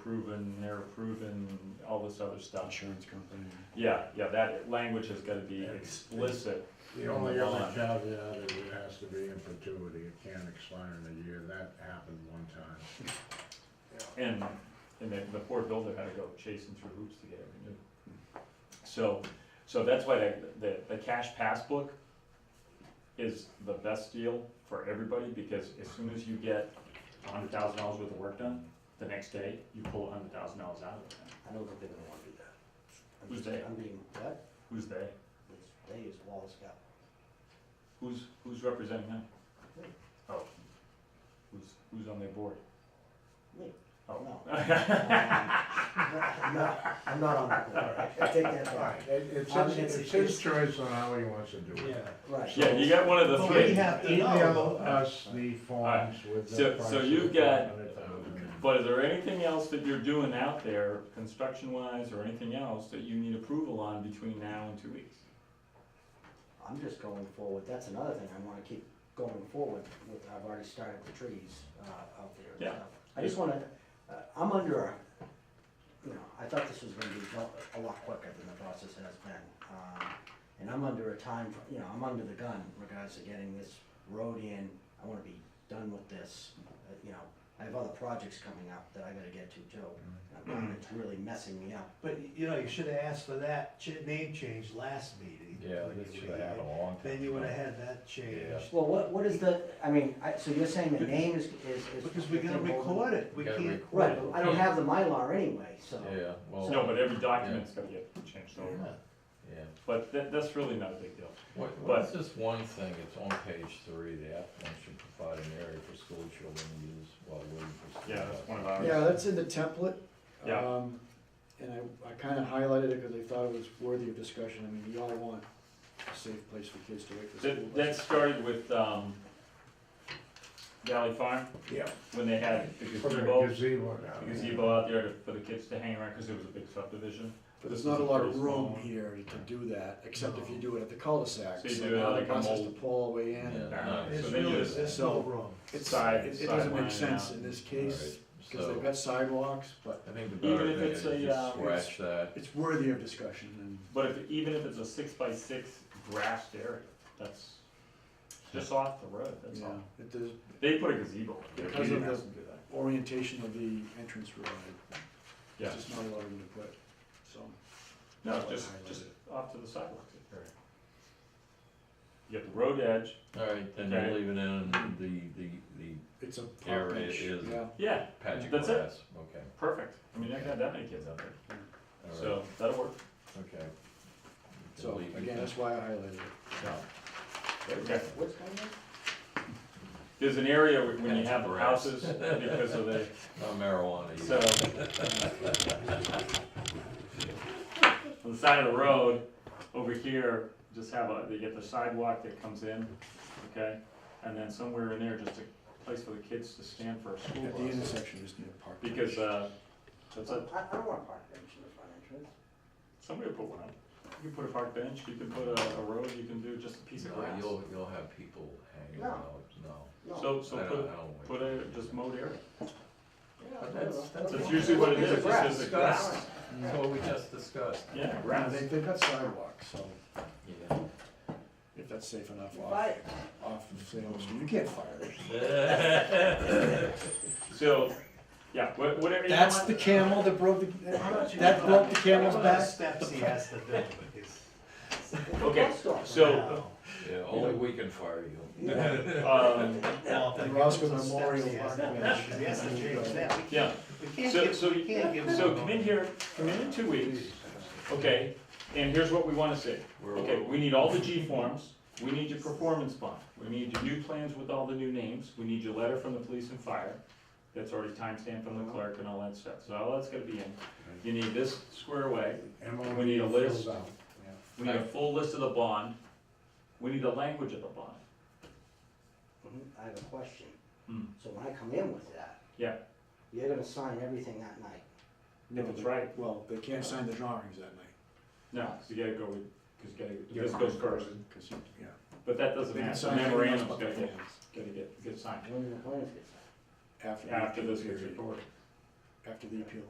proven, they're proven, all this other stuff. insurance company. Yeah, yeah, that language has gotta be explicit. The only other caveat is it has to be in perpetuity, it can't expire in a year, that happened one time. And, and the, the poor builder had to go chasing through hoops to get it renewed. So, so that's why the, the, the cash passbook is the best deal for everybody, because as soon as you get a hundred thousand dollars worth of work done, the next day, you pull a hundred thousand dollars out of it. I don't think they're gonna wanna do that. I'm Who's just- they? I'm being, what? Who's they? It's- They is Wallace County. Who's, who's representing them? Oh, who's, who's on their board? Me. Oh. No. Um, I'm not, I'm not on the board, I take that back. Right, it- it's Um, his, it's- it's his choice on how he wants to do it. Yeah. Right. Yeah, you got one of the Well, three. we have to Email know. uh, us the forms with the So- price. so of you've got- 100,000. But is there anything else that you're doing out there, construction wise or anything else, that you need approval on between now and two weeks? I'm just going forward, that's another thing, I wanna keep going forward with, I've already started the trees, uh, out there and Yeah. stuff. I just wanna, uh, I'm under, a- you know, I thought this was gonna be go- a lot quicker than the process has been. Um, And I'm under a time, fr- you know, I'm under the gun in regards to getting this road in, I wanna be done with this, uh, you know. I have other projects coming up that I gotta get to too, and it's Mm-hmm. really messing me up. But, you know, you should have asked for that ch- name change last meeting. Yeah, When this you should were have happened a here. long time. Then you would have ago. had that changed. Well, what, what is the, I mean, I, so you're saying the name is, is. is- Because we gotta is- record it, we You gotta can't. record Right, it. but I don't have the Mylar anyway, so. Yeah, Oh. No, well, but every document's gotta get changed over, Yeah. yeah. but that, that's really not a big deal. What, But- what is this one thing, it's on page three, the applicant should provide an area for school children to use while waiting for. school Yeah, hours. that's one of ours. Yeah, that's in the template. Yeah. Um, And I, I kinda highlighted it because I thought it was worthy of discussion. I mean, we all want a safe place for kids to wait for school. That, that buses. started with, um, Valley Farm, Yeah, when they had the put a gazebo, gazebo the down there. gazebo out there to- for the kids to hang around, cause it was a big subdivision. But this there's not is a lot pretty of small room one. here to do that, except if you No. do it at the cul-de-sac. So you So do it now like the a buses mole- to pull all the way in. Yeah, and- no, It's So they really, do that. uh, it's no room. It's, Side- it it doesn't sideline make sense out. in this case, Alright, because they've So, got sidewalks, but I think the Even better if thing it's is a, just um, scratch that, it's worthy of discussion and. But if, even if it's a six by six grassed area, that's just off the road, that's Yeah, all. it does, They put a gazebo. Because of the- do that. orientation of the entrance road, I- Yeah. there's just not a lot of room to put, so. No, that's why I just, highlighted just it. off to the sidewalk area. You got the road edge, alright, then you Okay. leave it in the, the, the It's a Area pop edge, is- yeah, yeah, patch of That's it. grass, okay, perfect, I mean, I got that many kids out there, alright, so that'll work, okay. You can so leave it again, there. that's why I highlighted it. so. Okay. What's going on? There's an area where- when you That's have the grass. houses, because of the, Not marijuana, so. either. On the side of the road, over here, just have a, they get the sidewalk that comes in, okay? And then somewhere in there, just a place for the kids to stand for a school At the bus, intersection, just need a park. bench. because, uh, that's a, I, I don't want a park bench in the front entrance. Somebody put one up. You can put a park bench, you can put a, a road, you can do just a piece of No, grass. you'll, you'll have people hanging No. out, no. No. So, so I don't- I put, don't like put that. a, just mowed area. Yeah, But that's- that's- That's usually what it It's is, a it's grass. just a grass. That's what we just discussed. Yeah, Yeah, grass. they, they've got sidewalks, so if that's safe enough, off, Right. off of Salem Street, you can't fire it. So, yeah, wha- whatever you That's want. the camel that broke How the, about you- that broke the camel's How about the back. Steps he has to do with his. Okay, Bus stop. so, Yeah, only we can fire you. Yeah. um, Well, if The he Roscoe puts those steps, Memorial he has Park to- bench. He has to change that, we can't, yeah, we can't So- give, so- we can't give. so him- come in here, come in in two weeks, okay? And here's what we wanna see. We're- Okay, we need all the G forms, we need your performance bond, we need your new plans with all the new names, we need your letter from the police and fire. That's already timestamped from Uh-huh. the clerk and all that stuff, so all that's gonna be in. You need this square away, And We need a list. fills out. we need a full list of the bond, we need the language of the bond. Mhm, I have a question. Hmm. So when I come in with that. Yeah. You're gonna sign everything that night. If it's right. Well, they can't sign the drawings that night, No, you gotta go with, cause you gotta, this goes first, cause you, yeah. but that doesn't They can matter, the sign anything else memorandum's but gotta the get, plans gotta get, get signed When do the plans get signed? After. the after this appeal gets period. recorded. After the appeal